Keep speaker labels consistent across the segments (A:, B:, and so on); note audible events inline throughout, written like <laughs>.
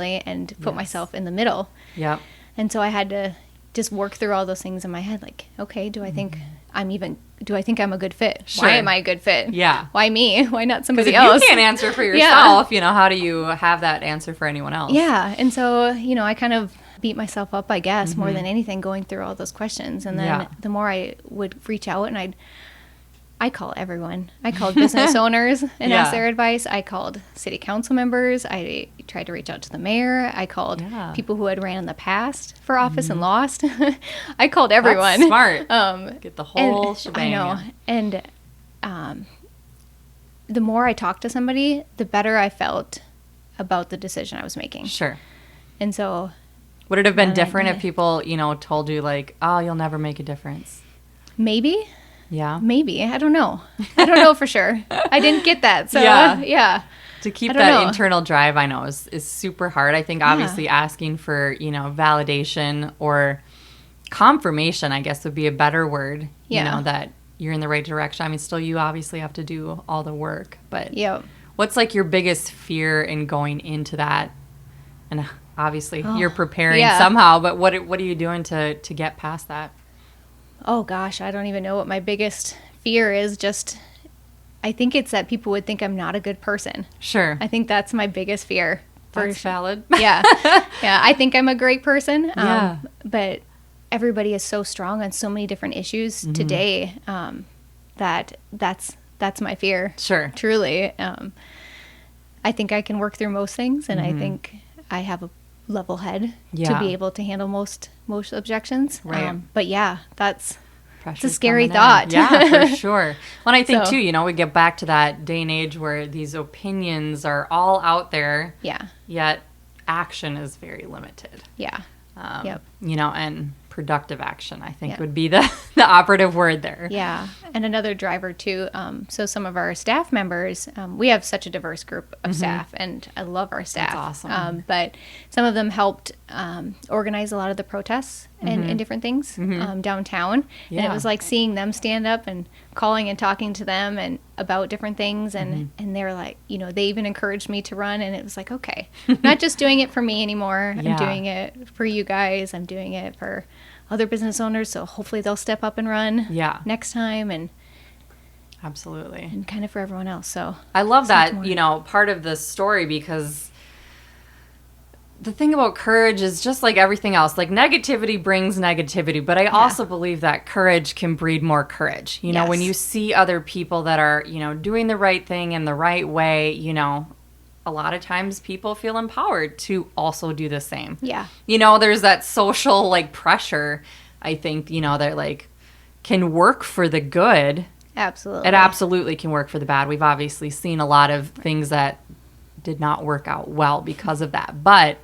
A: and put
B: Yes.
A: myself in the middle.
B: Yep.
A: And so I had to just work through all those things in my head like, okay, do I think I'm even do I think I'm a good fit?
B: Mm-hmm. Sure.
A: Why am I a good fit?
B: Yeah.
A: Why me? <laughs> Why not
B: Because
A: somebody
B: if
A: else?
B: you can't answer
A: <laughs>
B: for yourself, you know, how do you have that answer for anyone else?
A: Yeah. And so, you know, I kind of beat myself up, I guess, more than anything going through all those questions. And then
B: Mm-hmm. Yeah.
A: the more I would reach out and I'd I call everyone. I called
B: <laughs>
A: business owners and
B: Yeah.
A: asked their advice. I called city council members. I tried to reach out to the mayor. I called
B: Yeah. Mm-hmm.
A: people who had ran in the past for office and lost. <laughs> I called
B: That's
A: everyone.
B: smart.
A: <laughs> Um,
B: Get the
A: and-
B: whole shebang.
A: I know. And um, the more I talked to somebody, the better I felt about the decision I was making.
B: Sure.
A: And so
B: Would it have been
A: And I
B: different if
A: did.
B: people, you know, told you like, "Oh, you'll never make a difference"?
A: maybe,
B: Yeah.
A: maybe, I don't know. I don't
B: <laughs>
A: know for sure. I didn't get that. So,
B: Yeah.
A: yeah. <laughs> yeah.
B: To
A: I
B: keep
A: don't
B: that
A: know.
B: internal drive, I know is is super hard. I think obviously asking for you know validation or confirmation, I guess, would be a better word.
A: Yeah.
B: You know that you're in the right direction. I mean, still, you obviously have to do all the work, but
A: Yep.
B: what's like your biggest fear in going into that? And uh, obviously, you're preparing
A: Oh, yeah.
B: somehow, but what what are you doing to to get past that?
A: Oh gosh, I don't even know what my biggest fear is. Just, I think it's that people would think I'm not a good person.
B: Sure.
A: I think that's my biggest fear. for
B: That's
A: sure.
B: valid.
A: <laughs> yeah yeah i think i'm a great person um,
B: Yeah.
A: but everybody is so strong on so many different issues
B: Mm-hmm.
A: today um, that that's that's my fear
B: <laughs> Sure.
A: truly um, i think i can work through most things and i think i have a level head to
B: Mm-hmm. Yeah.
A: be able to handle most most objections um,
B: Right.
A: but yeah that's
B: Pressure's
A: scary
B: coming in.
A: thought. <laughs>
B: Yeah, for sure. Well, and I think
A: So-
B: too, you know, we get back to that day and age where these opinions are all out there,
A: yeah
B: yet action is very limited.
A: yeah
B: Um,
A: Yep.
B: You know, and productive action, I think,
A: Yeah.
B: would be the <laughs> the operative word there.
A: Yeah, and another driver too. Um, so some of our staff members, um, we have such a diverse group of staff, and I love our staff.
B: Mm-hmm. awesome.
A: Um, but some of them helped um, organize a lot of the protests and, and different things um, downtown, and
B: Mm-hmm. Yeah.
A: it was like seeing them stand up and calling and talking to them and about different things, and
B: Mm-hmm.
A: and they're like, you know, they even encouraged me to run, and it was like, okay, I'm not just doing it for me anymore.
B: Yeah.
A: I'm doing it for you guys. I'm doing it for other business owners. So hopefully they'll step up and run
B: Yeah.
A: next time and,
B: Absolutely.
A: and kind of for everyone else. So
B: I love
A: Something
B: that,
A: more.
B: you know, part of the story because the thing about courage is just like everything else. Like negativity brings negativity, but I also believe that courage can breed more courage. You know, when
A: Yes.
B: you see other people that are, you know, doing the right thing in the right way, you know, a lot of times people feel empowered to also do the same
A: yeah,
B: you know there's that social like pressure i think you know that like can work for the good
A: absolutely.
B: it absolutely can work for the bad we've obviously seen a lot of things that did not work out well because of that but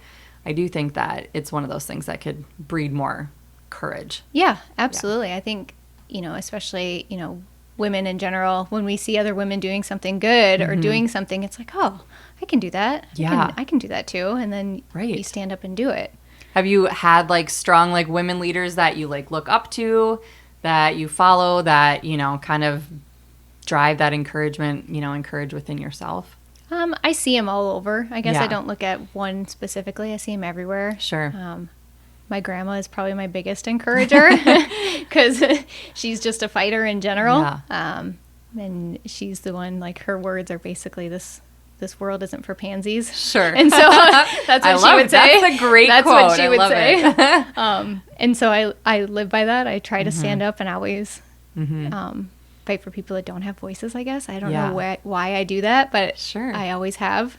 B: i do think that it's one of those things that could breed more courage
A: yeah, absolutely. I think, you know, especially, you know, women in general, when we see other women doing something good or doing something, it's like, oh, I can do that. I can-
B: Mm-hmm. Yeah.
A: I can do that too. And then
B: Right.
A: you stand up and do it.
B: have you had like strong like women leaders that you like look up to that you follow that you know kind of drive that encouragement you know encourage within yourself
A: Um, I see them all over. I guess
B: Yeah.
A: I don't look at one specifically. I see them everywhere.
B: Sure.
A: Um, my grandma is probably my biggest
B: <laughs>
A: encourager <laughs> because she's just a fighter in general.
B: Yeah.
A: Um, and she's the one like her words are basically this this world isn't for pansies.
B: sure
A: And
B: <laughs>
A: so that's what
B: I
A: she
B: love
A: would
B: it.
A: say.
B: That's a great
A: That's
B: quote.
A: what she
B: I
A: would
B: love
A: say. <laughs>
B: it. Mm-hmm.
A: um, and so I I live by that. I try to stand up and always um, fight for people that don't have voices. I guess I don't
B: Yeah.
A: know why, why I do that, but
B: Sure.
A: I always have.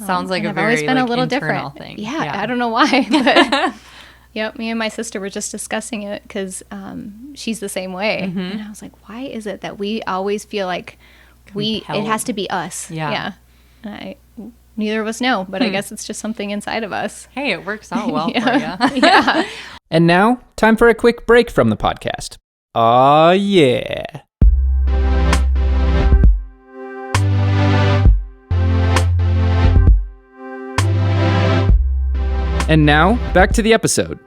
A: Um,
B: Sounds like
A: and
B: a
A: I've
B: very
A: always been
B: like,
A: a little
B: internal
A: different
B: thing.
A: Yeah, I don't know why. <laughs>
B: <laughs>
A: But yep, me and my sister were just discussing it because um, she's the same way,
B: Mm-hmm.
A: and I was like, why is it that we always feel like we it has
B: Compelled.
A: to be us?
B: Yeah. Hmm.
A: yeah. And I neither of us know, but I guess it's just something inside of us.
B: Hey, it
A: <laughs>
B: works out well for you.
A: Yeah.
C: And now, time for a quick break from the podcast. Aw, yeah. And now, back to the episode.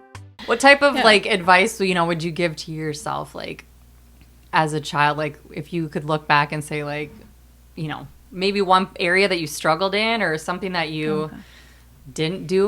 B: What type of like advice, you know, would you give to yourself like as a child like if you could look back and say like, you know, maybe one area that you struggled in or something that you didn't do